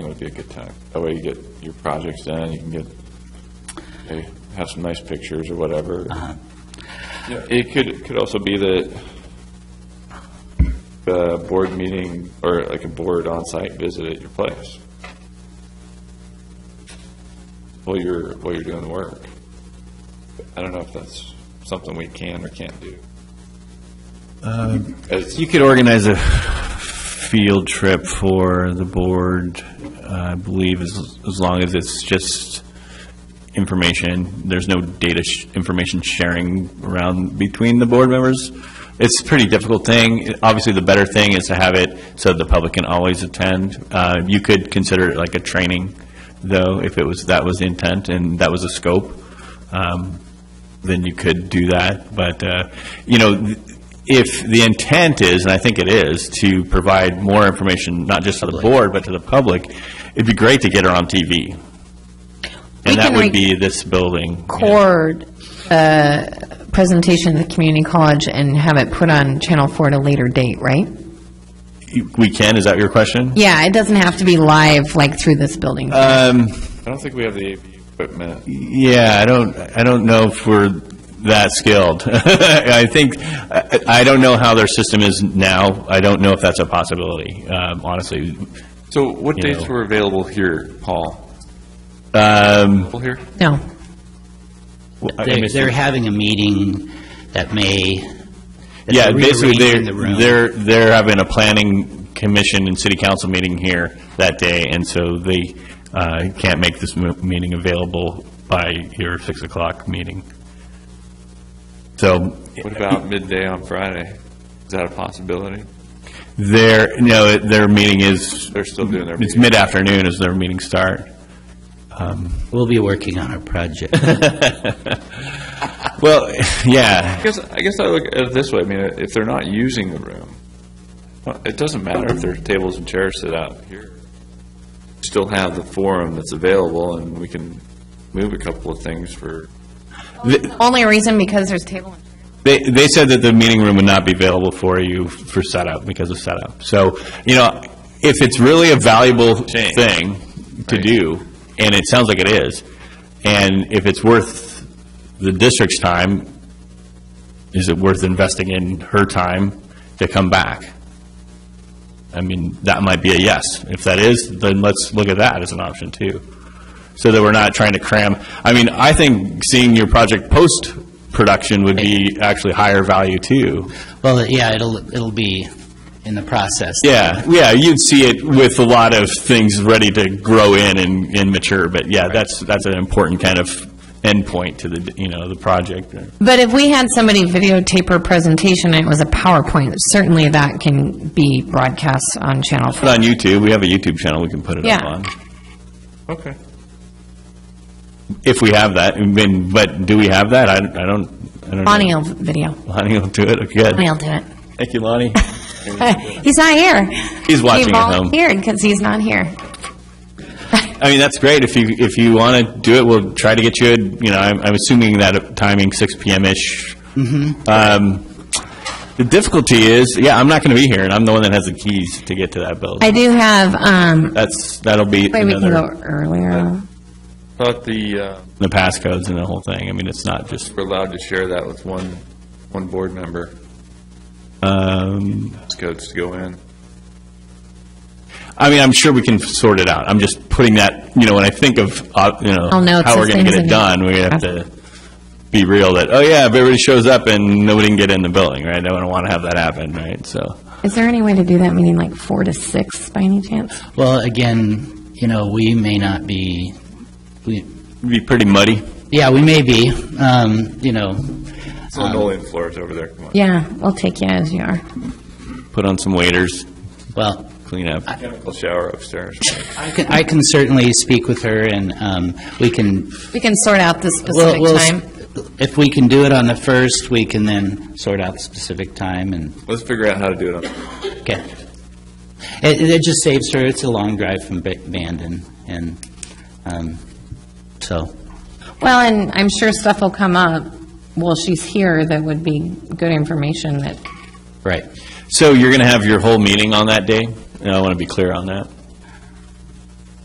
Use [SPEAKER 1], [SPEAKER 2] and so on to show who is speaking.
[SPEAKER 1] would be a good time. That way you get your projects done, you can get, they have some nice pictures or whatever.
[SPEAKER 2] Uh-huh.
[SPEAKER 1] Yeah, It could, it could also be that the board meeting, or like a board on-site visit at your place. While you're, while you're doing the work. I don't know if that's something we can or can't do. As-
[SPEAKER 2] You could organize a field trip for the board, I believe, as, as long as it's just information. There's no data, sh- information sharing around between the board members. It's a pretty difficult thing. Obviously, the better thing is to have it so the public can always attend. Uh, You could consider it like a training, though, if it was, that was the intent and that was the scope. Um, then you could do that. But, uh, you know, th- if the intent is, and I think it is, to provide more information, not just to the board, but to the public, it'd be great to get her on TV.
[SPEAKER 3] We
[SPEAKER 2] And that
[SPEAKER 3] can
[SPEAKER 2] would be this building.
[SPEAKER 3] core uh, presentation at the community college and have it put on Channel 4 at a later date, right?
[SPEAKER 2] We can, is that your question?
[SPEAKER 3] Yeah, it doesn't have to be live, like, through this building.
[SPEAKER 2] Um,
[SPEAKER 1] I don't think we have the AV equipment.
[SPEAKER 2] Yeah, I don't, I don't know if we're that skilled. I think, I I don't know how their system is now. I don't know if that's a possibility, um, honestly.
[SPEAKER 1] So what
[SPEAKER 2] You
[SPEAKER 1] dates
[SPEAKER 2] know.
[SPEAKER 1] were available here, Paul?
[SPEAKER 2] Um,
[SPEAKER 1] Available here?
[SPEAKER 3] No.
[SPEAKER 2] I
[SPEAKER 4] They're,
[SPEAKER 2] missed
[SPEAKER 4] they're having a meeting that may. that's
[SPEAKER 2] Yeah, basically,
[SPEAKER 4] rearranging
[SPEAKER 2] they're,
[SPEAKER 4] the room.
[SPEAKER 2] they're, they're having a planning commission and city council meeting here that day, and so they uh, can't make this mo- meeting available by your 6 o'clock meeting. So
[SPEAKER 1] What about midday on Friday? Is that a possibility?
[SPEAKER 2] their, no, their meeting is,
[SPEAKER 1] They're still doing their
[SPEAKER 2] it's
[SPEAKER 1] meeting.
[SPEAKER 2] mid-afternoon is their meeting start. Um,
[SPEAKER 4] We'll be working on a project.
[SPEAKER 2] Well, yeah,
[SPEAKER 1] I guess, I guess I look at it this way, I mean, if they're not using the room, well, it doesn't matter if there's tables and chairs set out here. Still have the forum that's available, and we can move a couple of things for,
[SPEAKER 3] Only reason because there's table and
[SPEAKER 2] they, they said that the meeting room would not be available for you for setup, because of setup. So, you know, if it's really a valuable
[SPEAKER 1] Change.
[SPEAKER 2] thing to
[SPEAKER 1] Right.
[SPEAKER 2] do, and it sounds like it is, and if it's worth the district's time, is it worth investing in her time to come back? I mean, that might be a yes. If that is, then let's look at that as an option, too. So that we're not trying to cram, I mean, I think seeing your project post-production would be actually higher value, too.
[SPEAKER 4] Well, yeah, it'll, it'll be in the process.
[SPEAKER 2] Yeah, yeah, you'd see it with a lot of things ready to grow in and, and mature, but yeah, that's, that's an important kind of endpoint to the, you know, the project.
[SPEAKER 3] But if we had somebody videotape her presentation and it was a PowerPoint, certainly that can be broadcast on Channel 4.
[SPEAKER 2] Put on YouTube, we have a YouTube channel we can put it up
[SPEAKER 3] Yeah.
[SPEAKER 2] on,
[SPEAKER 1] okay.
[SPEAKER 2] if we have that, I mean, but do we have that? I, I don't, I don't know.
[SPEAKER 3] Lonnie will video.
[SPEAKER 2] Lonnie will do it, okay.
[SPEAKER 3] Lonnie will do it.
[SPEAKER 2] Thank you, Lonnie.
[SPEAKER 3] He's not here.
[SPEAKER 2] He's watching at home.
[SPEAKER 3] He volunteered because he's not here.
[SPEAKER 2] I mean, that's great, if you, if you want to do it, we'll try to get you, a- you know, I'm, I'm assuming that timing, six PM-ish. Um, The difficulty is, yeah, I'm not going to be here, and I'm the one that has the keys to get to that building.
[SPEAKER 3] I do have, um,
[SPEAKER 2] That's, that'll be
[SPEAKER 3] wait, we can go
[SPEAKER 2] another,
[SPEAKER 3] earlier.
[SPEAKER 1] Thought the, uh,
[SPEAKER 2] the passcodes and the whole thing, I mean, it's not just,
[SPEAKER 1] we're allowed to share that with one, one board member,
[SPEAKER 2] um,
[SPEAKER 1] It's codes to go in.
[SPEAKER 2] I mean, I'm sure we can sort it out. I'm just putting that, you know, when I think of, uh, you know,
[SPEAKER 3] I'll know it's
[SPEAKER 2] how we're
[SPEAKER 3] the
[SPEAKER 2] going to get it
[SPEAKER 3] same as
[SPEAKER 2] done, we have to be real that, oh, yeah, if everybody shows up and nobody can get in the building, right? I don't want to have that happen, right? So,
[SPEAKER 3] Is there any way to do that meeting like four to six by any chance?
[SPEAKER 4] Well, again, you know, we may not be, we,
[SPEAKER 2] it'd be pretty muddy.
[SPEAKER 4] yeah, we may be, um, you know,
[SPEAKER 1] It's linoleum floors over there, come on.
[SPEAKER 3] Yeah, we'll take you as you are.
[SPEAKER 2] Put on some waiters,
[SPEAKER 4] well,
[SPEAKER 2] clean up.
[SPEAKER 1] Chemical shower upstairs.
[SPEAKER 4] I can, I can certainly speak with her and, um, we can.
[SPEAKER 3] We can sort out the
[SPEAKER 4] we'll-
[SPEAKER 3] specific
[SPEAKER 4] we'll s-
[SPEAKER 3] time.
[SPEAKER 4] If we can do it on the first, we can then sort out the specific time and
[SPEAKER 1] Let's figure out how to do it. on-
[SPEAKER 4] Okay. It, it it just saves her, it's a long drive from Ba- Bandon, and, um, so,
[SPEAKER 3] Well, and I'm sure stuff will come up while she's here that would be good information that,
[SPEAKER 4] right.
[SPEAKER 2] So you're going to have your whole meeting on that day? And I want to be clear on that.